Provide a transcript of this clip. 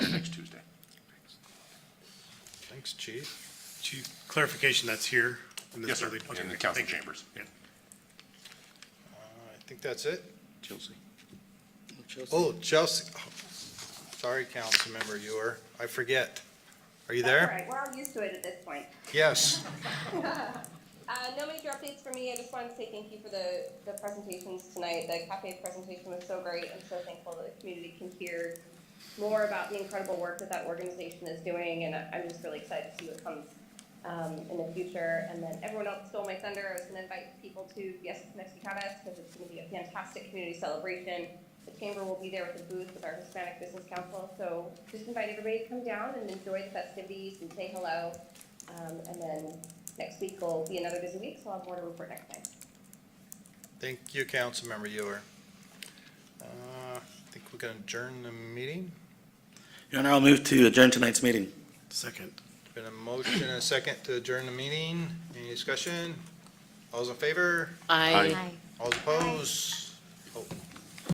Thanks, Chief. Chief, clarification, that's here? in this Yes, sir, building? Okay, in the great. council Thank you. chambers. Yeah. Uh, I think that's it. Chelsea. Oh, Chelsea, oh, sorry, Councilmember Ewer, I forget. Are you That's there? all right, we're all used to it at this point. Yes. Uh, no major updates for me, I just wanted to say thank you for the, the presentations tonight. The cafe presentation was so great, I'm so thankful that the community can hear more about the incredible work that that organization is doing, and I- I'm just really excited to see what comes, um, in the future. And then everyone else stole my thunder, I was gonna invite people to Yes Mexicanas, because it's gonna be a fantastic community celebration. The chamber will be there with a booth with our Hispanic Business Council, so just invite everybody to come down and enjoy the festivities and say hello. Um, and then next week will be another busy week, so I'll have more to report next time. Thank you, Councilmember Ewer. Uh, I think we can adjourn the meeting. Your Honor, I'll move to adjourn tonight's meeting. Second. Been a motion and a second to adjourn the meeting. Any discussion? All's in favor? Aye. All's opposed?